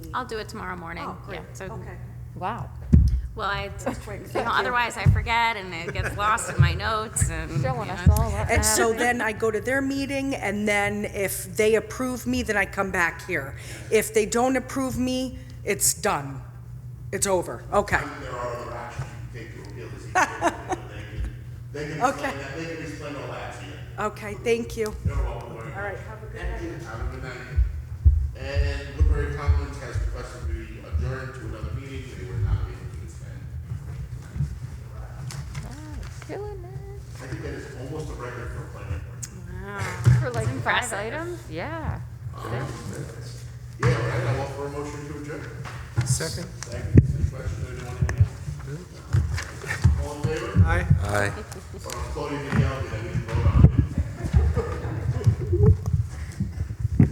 I'll do it tomorrow morning. Oh, great, Yeah, so, okay. Wow. well, I, Quick. you know, otherwise I forget and it gets lost in my notes and, you Showing know, us all what And so happened. then I go to their meeting, and then if they approve me, then I come back here. If they don't approve me, it's done. It's over, okay. There are other options you can take to appeal this. issue. They can Okay. explain that, they can explain all that to you. Okay, thank you. You're welcome. All right, have a good night. Have a good night. And Woodbury Commons has requested we adjourn to another meeting, they were not able to attend. Killing it. I think that is almost a record for a planning board. Ah. For like five impressive. items? Yeah. Yeah, all right, I offer a motion to adjourn. Second? Thank you. Any questions, anyone? All in favor? Aye. Or Claudia, you